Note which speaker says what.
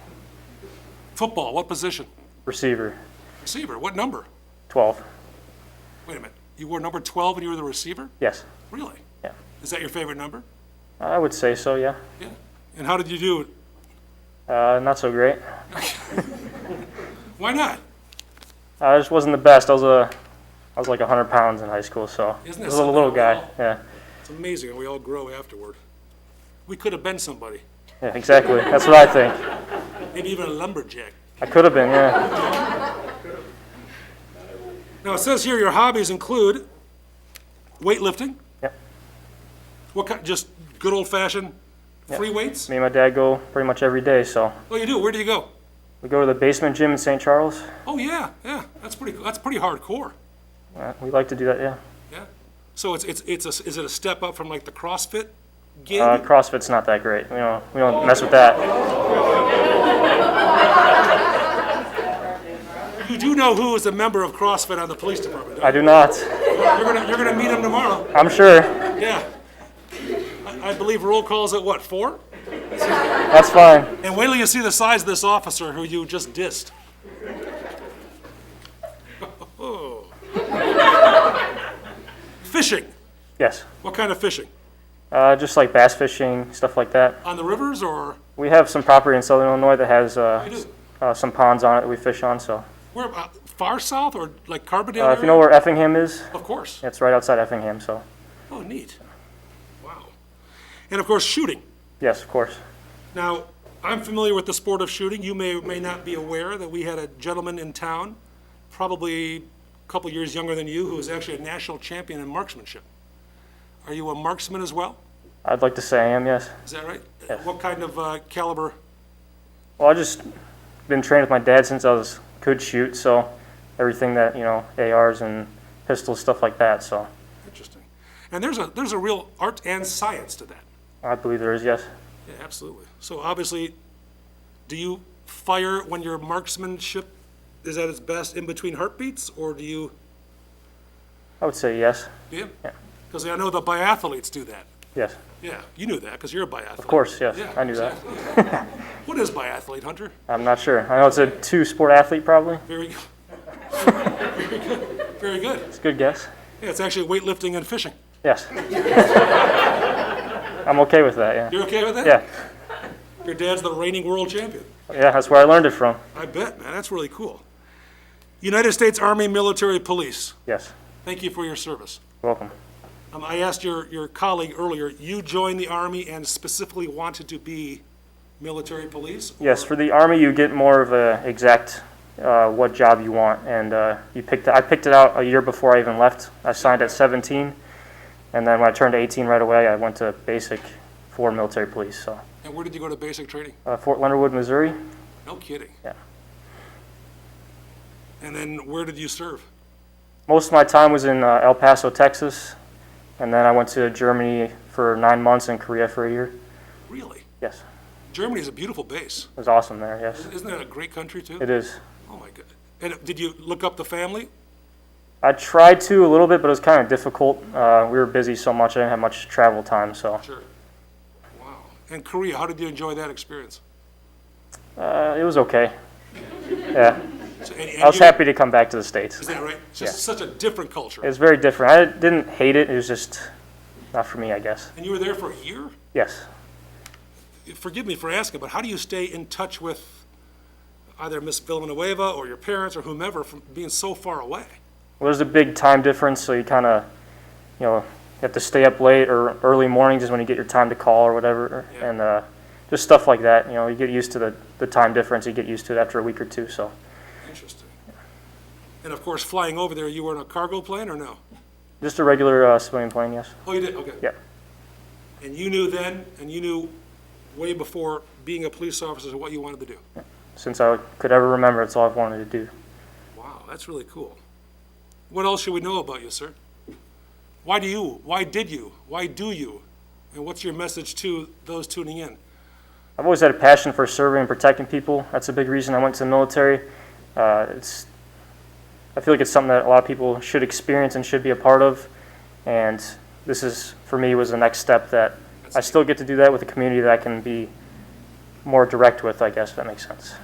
Speaker 1: Football, what position?
Speaker 2: Receiver,
Speaker 1: Receiver, what number?
Speaker 2: 12.
Speaker 1: Wait a minute, you wore number 12 and you were the receiver?
Speaker 2: Yes.
Speaker 1: Really?
Speaker 2: Yeah.
Speaker 1: Is that your favorite number?
Speaker 2: I would say so, yeah.
Speaker 1: Yeah. And how did you do?
Speaker 2: Uh, not so great.
Speaker 1: Why not?
Speaker 2: I just wasn't the best. I was a, I was like 100 pounds in high school, so
Speaker 1: Isn't that
Speaker 2: I was a little
Speaker 1: something?
Speaker 2: guy. Yeah,
Speaker 1: It's amazing how we all grow afterward. We could have been somebody,
Speaker 2: yeah, exactly. That's what I think.
Speaker 1: maybe even a lumberjack.
Speaker 2: I could have been, yeah.
Speaker 1: Now, it says here your hobbies include weightlifting.
Speaker 2: Yep.
Speaker 1: What kind, just good old fashioned free weights?
Speaker 2: Me and my dad go pretty much every day, so
Speaker 1: Oh, you do? Where do you go?
Speaker 2: we go to the basement gym in St. Charles.
Speaker 1: Oh, yeah, yeah. That's pretty, that's pretty hardcore.
Speaker 2: Uh, we like to do that, yeah.
Speaker 1: Yeah. So it's, it's, it's a, is it a step up from like the CrossFit gig?
Speaker 2: Uh, CrossFit's not that great. We don't, we don't mess with that.
Speaker 1: you do know who is a member of CrossFit on the police department.
Speaker 2: I
Speaker 1: Don't
Speaker 2: do not.
Speaker 1: you? You're gonna, you're gonna meet him tomorrow.
Speaker 2: I'm sure.
Speaker 1: Yeah. I, I believe roll calls at what, four?
Speaker 2: That's fine.
Speaker 1: And wait till you see the size of this officer who you just dissed. fishing.
Speaker 2: Yes.
Speaker 1: What kind of fishing?
Speaker 2: Uh, just like bass fishing, stuff like that.
Speaker 1: On the rivers or
Speaker 2: We have some property in southern Illinois that has uh,
Speaker 1: do.
Speaker 2: s- uh, some ponds on it that we fish on, so.
Speaker 1: where? Uh, far south or like Carbondale?
Speaker 2: Uh,
Speaker 1: area?
Speaker 2: if you know where Effingham is,
Speaker 1: of course.
Speaker 2: it's right outside Effingham, so.
Speaker 1: Oh, neat. Wow. And of course, shooting.
Speaker 2: Yes, of course.
Speaker 1: Now, I'm familiar with the sport of shooting. You may or may not be aware that we had a gentleman in town, probably a couple years younger than you, who was actually a national champion in marksmanship. Are you a marksman as well?
Speaker 2: I'd like to say I am, yes.
Speaker 1: Is that right? What kind of uh, caliber?
Speaker 2: Well, I just been trained with my dad since I was could shoot, so everything that, you know, ARs and pistols, stuff like that, so.
Speaker 1: Interesting. And there's a there's a real art and science to that.
Speaker 2: I believe there is, yes.
Speaker 1: Yeah, absolutely. So obviously, do you fire when your marksmanship is at its best in between heartbeats, or do you?
Speaker 2: I would say yes.
Speaker 1: Do you? Because I know the biathletes do that.
Speaker 2: Yes.
Speaker 1: Yeah, you knew that because you're a biathlete.
Speaker 2: Of course, yes.
Speaker 1: Yeah,
Speaker 2: I knew that.
Speaker 1: exactly. what is biathlete, Hunter?
Speaker 2: I'm not sure. I know it's a two sport athlete, probably.
Speaker 1: Very good. Very good. Very good.
Speaker 2: It's a good guess.
Speaker 1: Yeah, it's actually weightlifting and fishing.
Speaker 2: Yes. I'm okay with that, yeah.
Speaker 1: You're okay with that?
Speaker 2: Yeah.
Speaker 1: Your dad's the reigning world champion.
Speaker 2: Yeah, that's where I learned it from.
Speaker 1: I bet, man. That's really cool. United States Army Military Police,
Speaker 2: Yes.
Speaker 1: thank you for your service.
Speaker 2: Welcome.
Speaker 1: Um, I asked your, your colleague earlier, you joined the Army and specifically wanted to be military police?
Speaker 2: Yes, for the Army, you get more of a exact uh, what job you want, and uh, you picked. I picked it out a year before I even left. I signed at 17, and then when I turned 18 right away, I went to basic for military police. So
Speaker 1: And where did you go to basic training?
Speaker 2: uh, Fort Leonard Wood, Missouri.
Speaker 1: No kidding.
Speaker 2: Yeah.
Speaker 1: And then where did you serve?
Speaker 2: Most of my time was in uh, El Paso, Texas, and then I went to Germany for nine months and Korea for a year.
Speaker 1: Really?
Speaker 2: Yes,
Speaker 1: Germany's a beautiful base.
Speaker 2: it was awesome there. Yes,
Speaker 1: Isn't that a great country, too?
Speaker 2: it is.
Speaker 1: Oh, my God. And did you look up the family?
Speaker 2: I tried to a little bit, but it was kind of difficult. Uh, we were busy so much; I didn't have much travel time. So.
Speaker 1: Sure. Wow. And Korea, how did you enjoy that experience?
Speaker 2: Uh, it was okay. Yeah,
Speaker 1: So- and- and
Speaker 2: I was
Speaker 1: you-
Speaker 2: happy to come back to the states.
Speaker 1: Is that right? It's just such a different culture.
Speaker 2: It's very different. I didn't hate it. It was just not for me, I guess.
Speaker 1: And you were there for a year?
Speaker 2: Yes.
Speaker 1: Forgive me for asking, but how do you stay in touch with either Miss Villanueva or your parents or whomever from being so far away?
Speaker 2: Well, there's a big time difference, so you kind of, you know, you have to stay up late or early mornings is when you get your time to call or whatever,
Speaker 1: Yeah.
Speaker 2: and uh, just stuff like that. You know, you get used to the, the time difference. You get used to it after a week or two. So
Speaker 1: Interesting. And of course, flying over there, you were in a cargo plane or no?
Speaker 2: just a regular uh, civilian plane, yes.
Speaker 1: Oh, you did, okay.
Speaker 2: Yeah.
Speaker 1: And you knew then, and you knew way before being a police officer what you wanted to do?
Speaker 2: Since I could ever remember, it's all I've wanted to do.
Speaker 1: Wow, that's really cool. What else should we know about you, sir? Why do you? Why did you? Why do you? And what's your message to those tuning in?
Speaker 2: I've always had a passion for serving and protecting people. That's a big reason I went to the military. Uh, it's, I feel like it's something that a lot of people should experience and should be a part of. And this is, for me, was the next step that I still get to do that with a community that I can be more direct with, I guess, if that makes sense.